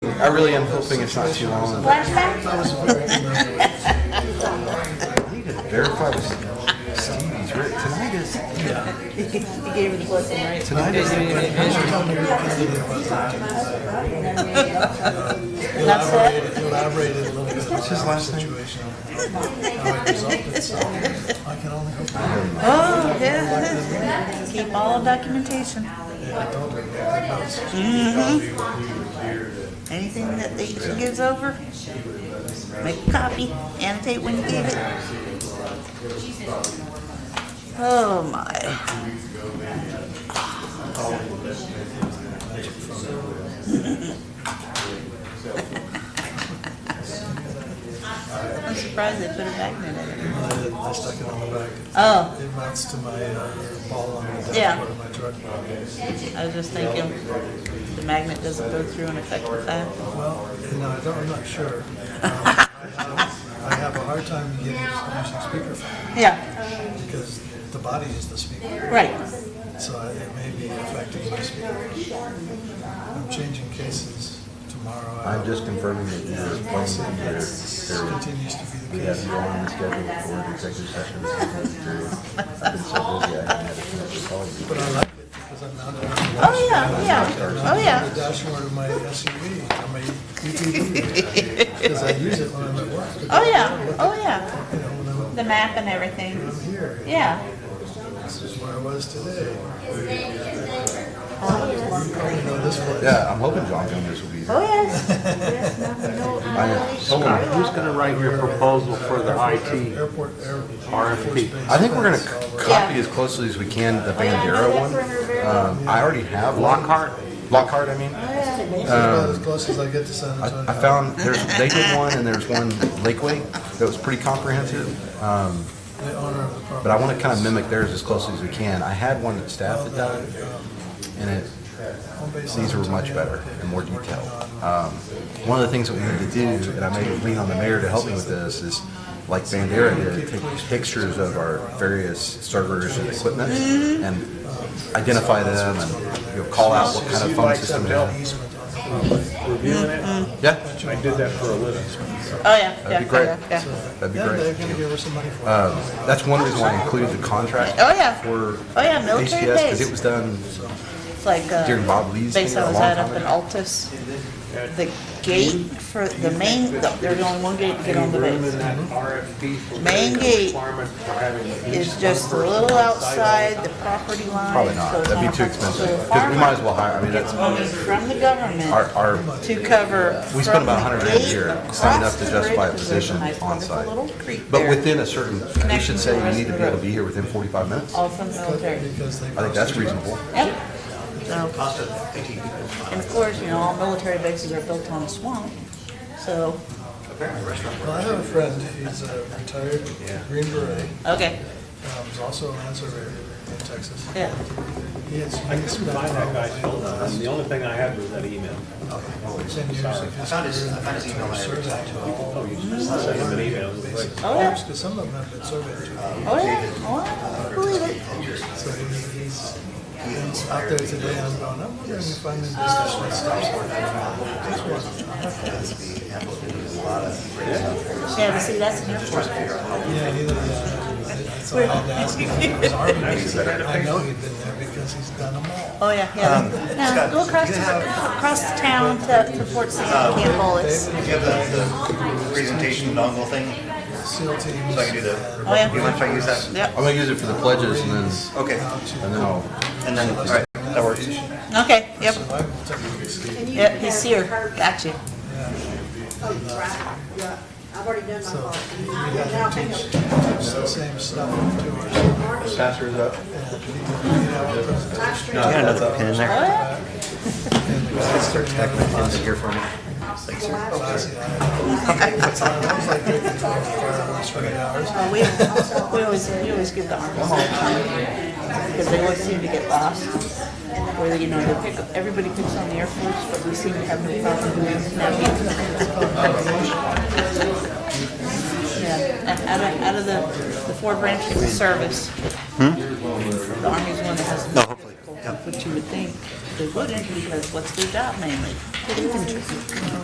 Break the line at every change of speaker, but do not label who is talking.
I really am hoping it's not too long.
Flashback?
You gotta verify with Stevie's written. Tonight is.
You gave her the blessing, right?
Tonight is.
That's it?
Elaborated a little bit.
What's his last name?
I can only hope
Oh, yeah. Keep all documentation. Mhm. Anything that they- she gives over, make a copy, annotate when you gave it. Oh, my. I'm surprised they put it back in there.
I stuck it on the back.
Oh.
It mounts to my uh, ball on the
Yeah.
dashboard of my truck.
I was just thinking, the magnet doesn't go through and affect the fact.
Well, you know, I don't, I'm not sure. Um, I have- I have a hard time getting using speakerphone
Yeah,
because the body is the speaker,
right.
so I- it may be affecting my speaker. I'm changing cases tomorrow. I
I'm
hope.
just confirming that your phone
That
period.
continues to be
We
the
have
case.
you on the schedule for an executive session. I've been so busy, I haven't had a chance to call
But
you.
I like it because I'm not.
Oh, yeah, yeah, oh,
The
yeah.
dashboard of my SUV, or my UTV, because I use it when I'm at work.
Oh, yeah, oh, yeah.
You know, when I'm-
The map and everything,
I'm here,
yeah.
Um,
this is where I was today. You know, this place.
Yeah, I'm hoping John Jones will be
Oh,
there.
yes,
I know,
Scott,
someone,
who's gonna write your proposal for the IT?
Airport, airport.
RFP.
I think we're gonna copy as closely as we can the Bandera one.
Oh,
Um, I already have. one.
Lockhart?
Lockhart, I mean.
This is about as close as I get to San Antonio.
I found, there's, they did one and there's one Lakeway that was pretty comprehensive. Um,
The owner of the property.
but I wanna kinda mimic theirs as closely as we can. I had one that staff had done and it, These were much better and more detailed. Um, One of the things that we need to do, and I may lean on the mayor to help me with this, is like Bandera did, take pictures of our various servers and equipment and identify them and, you know, call out what kind of phone system they have.
Easement on the property.
Reviewing it?
Yeah,
I did that for a living.
oh, yeah, yeah,
that'd be great.
yeah, yeah.
That'd be
Yeah, they're
great.
gonna give her some money for it.
Um, That's one reason why I included the contract.
Oh, yeah.
For
Oh, yeah, military
HDS, because
base.
it was done
It's like, uh,
during Bob Lee's thing
base
a
I
long
was at
time
up in
ago.
Altus, the gate for, the main, the- there's only one gate to get on the
Room in
base.
that RFP for
Main gate
requirement for having at
It's
least
just a
one
little
person on site all the
outside
time.
the property line.
Probably
so
not.
it's
That'd
not
be too
a problem. So
expensive.
a
Because we might
farmer
as well hire, I mean, that's.
Gets money from the government.
Our, our,
to cover.
we spend
from
about
the
100 grand a
gate
year,
across
not enough to
the
justify a
bridge, 'cause there's
position
nice,
on
wonderful
site.
little creek
but
there,
within a certain, we should say you need to be able to be here within 45 minutes. I
All from the military.
Because they.
think that's reasonable.
Yep. So, And of course, you know, all military bases are built on a swamp, so,
Well, I have a friend, he's a retired Green Beret,
okay,
um, he's also a land surveyor in Texas.
yeah.
He has
I couldn't find that guy's phone number. The only thing I had was that email.
ten years of his career in military surveying.
Oh, you just sent him an email.
Oh, yeah,
Because some of them have been surveyed too.
oh, yeah, oh, I believe it.
So he- he's, he's out there today, I'm going, I'm wondering if I'm in this discussion.
Yeah, but see, that's an airport.
Yeah, he, uh, so I had to ask him about his army. I know he'd been there because he's done them all.
Oh, yeah,
Um,
yeah. Now, go across, the- across the town to, to Fort Sam Campbell, it's,
Do you have the, the presentation dongle thing?
SEAL teams.
So I can do the,
oh, yeah.
you mind if I use that?
Yep,
I'm gonna use it for the pledges and then,
Okay,
and then I'll,
and then, all right, that works.
okay, yep,
Survival techniques.
yep, he's here, got you.
Yeah, I've already done my part.
We have to teach, teach the same stuff to our.
Pastor's up.
Pastor.
You got another pen in
Oh,
there?
yeah.
Start
Is it here for me?
Well, We, we always, we always give the arms because they always seem to get lost. Where, you know, they pick, everybody picks on the Air Force, but we seem to have no problem doing that. Yeah, out of, out of the, the four branches of service. The Army's one that has. No, hopefully. Which you would think they wouldn't because what's their job mainly? Infantry.